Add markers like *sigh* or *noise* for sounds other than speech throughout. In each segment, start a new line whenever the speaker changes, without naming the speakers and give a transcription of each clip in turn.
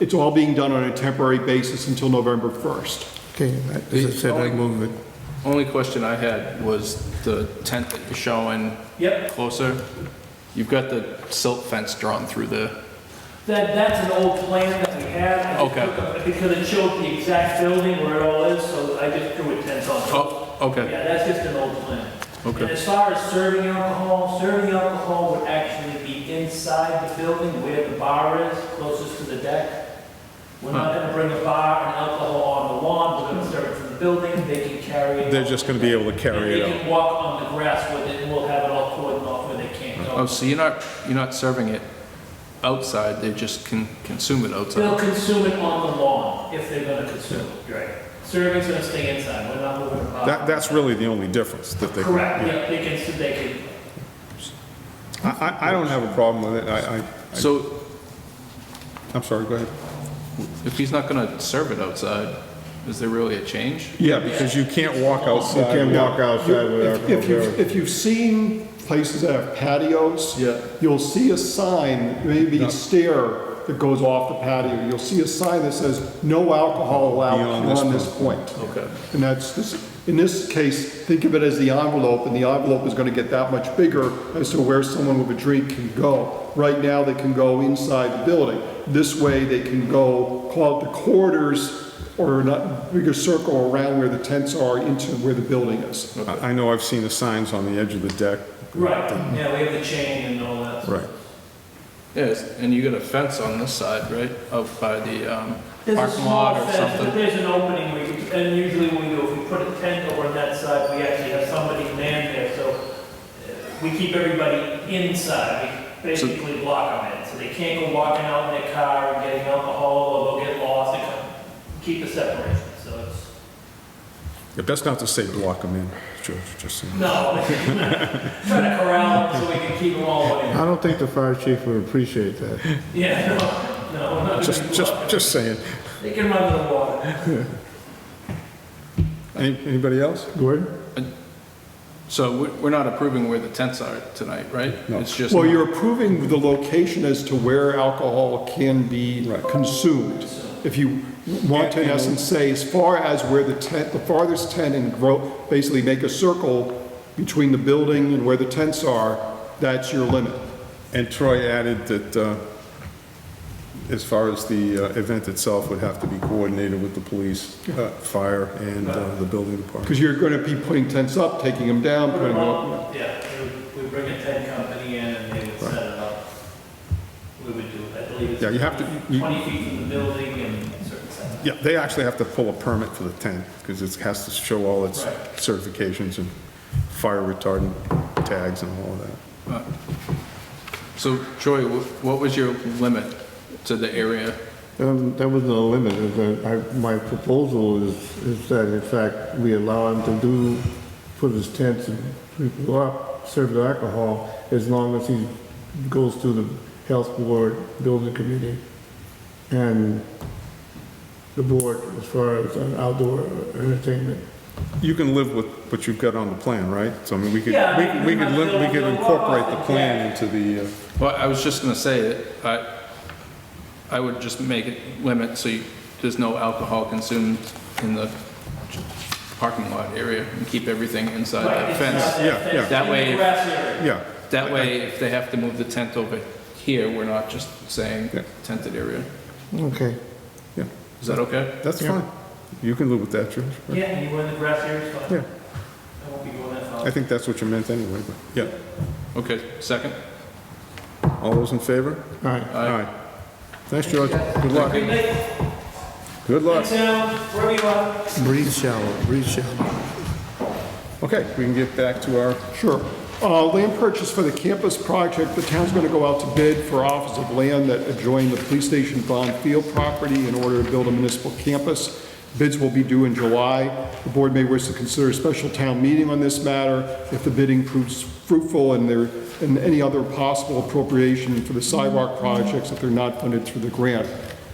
It's all being done on a temporary basis until November 1st.
Okay, I- as I said, I move it.
Only question I had was the tent that you're showing
Yep,
closer. You've got the silt fence drawn through the,
that, that's an old plan that we had. I just
Okay.
took a- Because it showed the exact building where it all is, so I just drew a tent on it.
oh, okay,
Yeah, that's just an old plan. And
okay.
as far as serving alcohol, serving alcohol would actually be inside the building where the bar is, closest to the deck. We're not gonna bring a bar and alcohol on the lawn, we're gonna serve it from the building, they can carry it.
They're just gonna be able to
And
carry it
They
out.
can walk on the grass with it, and we'll have it all cordoned off where they can't
Oh,
go.
so you're not, you're not serving it outside, they just can consume it
They'll
outside?
consume it on the lawn if they're gonna consume it. Right. Serving's gonna stay inside, we're not moving about.
That, that's really the only difference that they.
Correct, yeah, they can, so they can,
I, I, I don't have a problem with it, I, I,
So
I'm sorry, go ahead.
if he's not gonna serve it outside, is there really a change?
Yeah, because you can't walk
You
outside.
can't walk outside
If
without
if
alcohol.
you've, if you've seen places that have patios.
Yeah.
You'll see a sign, maybe a stair that goes off the patio. You'll see a sign that says, no alcohol allowed
Beyond this
beyond this point.
Okay.
And that's, this- in this case, think of it as the envelope, and the envelope is gonna get that much bigger as to where someone with a drink can go. Right now, they can go inside the building. This way, they can go, call it the corridors, or not, bigger circle around where the tents are into where the building is.
I I know I've seen the signs on the edge of the deck.
right, yeah, we have the chain and all that.
Right.
Yes, and you got a fence on this side, right, out by the um,
There's a
parking
small
lot or
fence, but
something?
there's an opening where you, and usually when we do, if we put a tent over on that side, we actually have somebody man there, so uh, we keep everybody inside, we basically block them in, so they can't go walking out in their car and getting alcohol, or they'll get lost, and come, keep the separation, so it's,
Yeah, Best not to say block them in, George, just saying.
no. *laughs* Try to corral them so we can keep them all away.
I don't think the fire chief would appreciate that.
Yeah, no, no, we're not
Just,
gonna
just,
block them.
just saying.
They can run to the water.
Any- Anybody else?
Gordon?
So we- we're not approving where the tents are tonight, right?
No.
It's just,
Well, you're approving the location as to where alcohol can be
Right.
consumed. If you want to, in essence, say as far as where the tent, the farthest tent and grow, basically make a circle between the building and where the tents are, that's your limit.
And Troy added that, uh, as far as the uh, event itself would have to be coordinated with the police, uh, fire, and uh, the building department.
Because you're going to be putting tents up, taking them down,
Put
putting
them
them up.
on, yeah, we- we bring a tent company in and they would set it up. We would do, I believe it's.
Yeah, you have to- you-
20 feet from the building and certain setback.
Yeah, they actually have to pull a permit for the tent, because it has to show all its
Right.
certifications and fire retardant tags and all of that.
so Troy, wh- what was your limit to the area?
Um, That was no limit. It was, uh, I- My proposal is, is that in fact, we allow him to do, put his tents and people up, serve the alcohol, as long as he goes through the health board, building committee, and the board as far as uh, outdoor entertainment.
You can live with what you've got on the plan, right? So I mean, we could,
Yeah,
we
I
we
mean,
could, li- we could
they'll- they'll
incorporate
walk
the
off the
plan into the, uh,
Well, I was just going to say that I, I would just make it limit so you- there's no alcohol consumed in the parking lot area and keep everything inside
Right,
that
it's not
fence.
yeah,
fence,
yeah.
it's
That
in the
way-
grass area.
yeah.
That way, if they have to move the tent over here, we're not just saying
Yeah.
tented area.
Okay.
Yeah,
Is that okay?
that's fine. You can live with that, George. right?
Yeah, and you were in the grass area, it's fine.
Yeah.
I won't be going that far.
I think that's what you meant anyway, but, yeah.
Okay, second?
All those in favor?
All right.
Aye.
Thanks, George. Good luck.
Good night,
Good luck.
town, wherever you are.
Breathe shallow, breathe shallow.
Okay, we can get back to our,
Sure. Uh, Land purchase for the campus project, the town's going to go out to bid for office of land that adjoin the police station bond field property in order to build a municipal campus. Bids will be due in July. The board may wish to consider a special town meeting on this matter if the bidding proves fruitful and there, and any other possible appropriation for the sidewalk projects if they're not funded through the grant.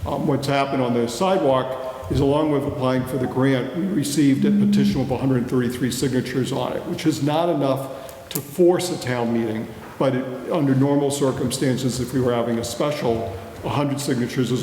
Um, What's happened on the sidewalk is along with applying for the grant, we received a petition with 133 signatures on it, which is not enough to force a town meeting, but it- under normal circumstances, if we were having a special, 100 signatures is